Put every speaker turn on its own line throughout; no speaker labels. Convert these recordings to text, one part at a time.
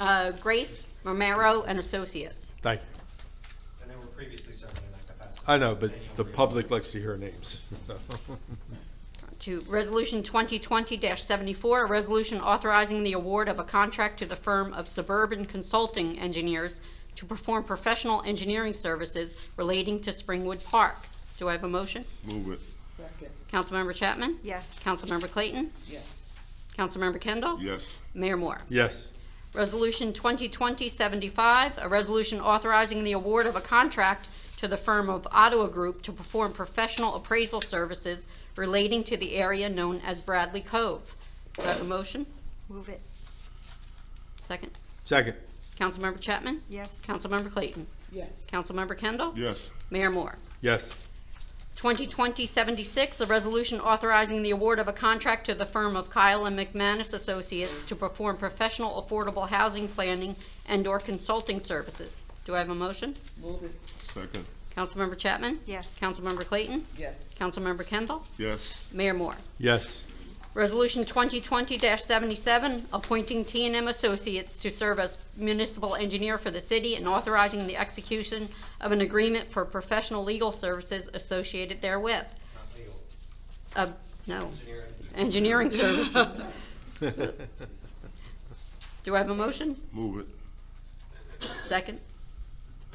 Uh, Grace Romero and Associates.
Thank you.
And they were previously serving in that capacity.
I know, but
And you'll
the
read-
public likes to hear names.
To Resolution 2020-74, a resolution authorizing the award of a contract to the firm of Suburban Consulting Engineers to perform professional engineering services relating to Springwood Park. Do I have a motion?
Move it.
Second,
Councilmember Chapman?
yes,
Councilmember Clayton?
yes.
Councilmember Kendall?
Yes.
Mayor Moore?
Yes,
Resolution 2020-75, a resolution authorizing the award of a contract to the firm of Ottawa Group to perform professional appraisal services relating to the area known as Bradley Cove. Do I have a motion?
move it,
Second.
second,
Councilmember Chapman?
yes,
Councilmember Clayton?
Yes,
Councilmember Kendall?
Yes.
Mayor Moore?
yes,
2020-76, a resolution authorizing the award of a contract to the firm of Kyle and McManus Associates to perform professional affordable housing planning and/or consulting services. Do I have a motion?
move it,
Second.
Councilmember Chapman?
yes,
Councilmember Clayton?
yes.
Councilmember Kendall?
Yes.
Mayor Moore?
yes,
Resolution 2020-77, appointing t and M Associates to serve as municipal engineer for the city and authorizing the execution of an agreement for professional legal services associated therewith.
It's not
Uh,
legal.
no,
Engineering.
engineering services. Do I have a motion?
Move it.
Second.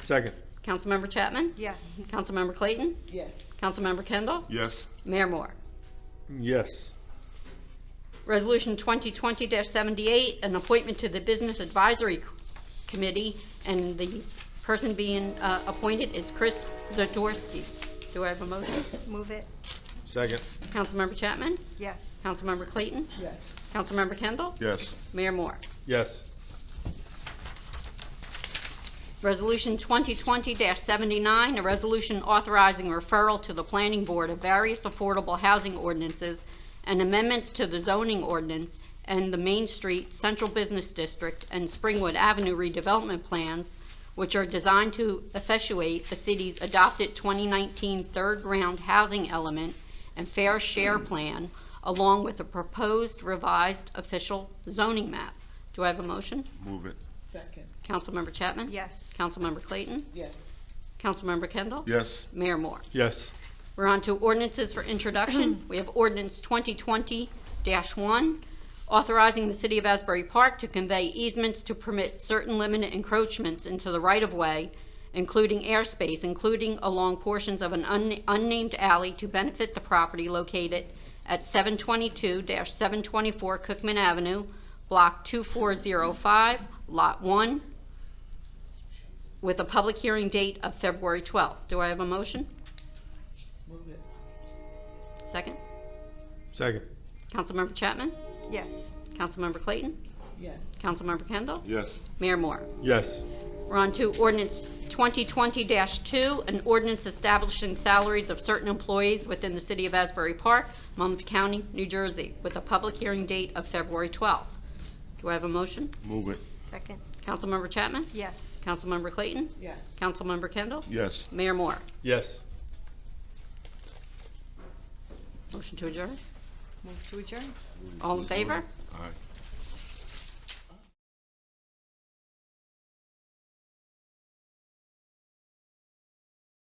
second,
Councilmember Chapman?
yes,
Councilmember Clayton?
Yes,
Councilmember Kendall?
Yes.
Mayor Moore?
yes,
Resolution 2020-78, an appointment to the Business Advisory Committee, and the person being uh, appointed is Chris Zdorsky. Do I have a motion?
move it,
second,
Councilmember Chapman?
yes,
Councilmember Clayton?
yes,
Councilmember Kendall?
Yes.
Mayor Moore?
yes,
Resolution 2020-79, a resolution authorizing referral to the planning board of various affordable housing ordinances and amendments to the zoning ordinance and the Main Street Central Business District and Springwood Avenue redevelopment plans, which are designed to effectuate the city's adopted 2019 third-round housing element and fair share plan, along with a proposed revised official zoning map. Do I have a motion?
Move it.
second,
Councilmember Chapman?
yes,
Councilmember Clayton?
yes,
Councilmember Kendall?
Yes.
Mayor Moore?
yes,
We're on to ordinances for introduction. We have ordinance 2020-1, authorizing the City of Asbury Park to convey easements to permit certain limited encroachments into the right-of-way, including airspace, including along portions of an un- unnamed alley to benefit the property located at 722-724 Cookman Avenue, Block 2405, Lot 1, with a public hearing date of February 12th. Do I have a motion?
move it,
Second.
second,
Councilmember Chapman?
yes,
Councilmember Clayton?
yes,
Councilmember Kendall?
Yes.
Mayor Moore?
yes,
We're on to ordinance 2020-2, an ordinance establishing salaries of certain employees within the city of Asbury Park, Monmouth County, New Jersey, with a public hearing date of February 12th. Do I have a motion?
Move it.
second,
Councilmember Chapman?
yes,
Councilmember Clayton?
yes,
Councilmember Kendall?
Yes.
Mayor Moore?
yes,
Motion to adjourn?
move to adjourn,
All in favor?
Aye.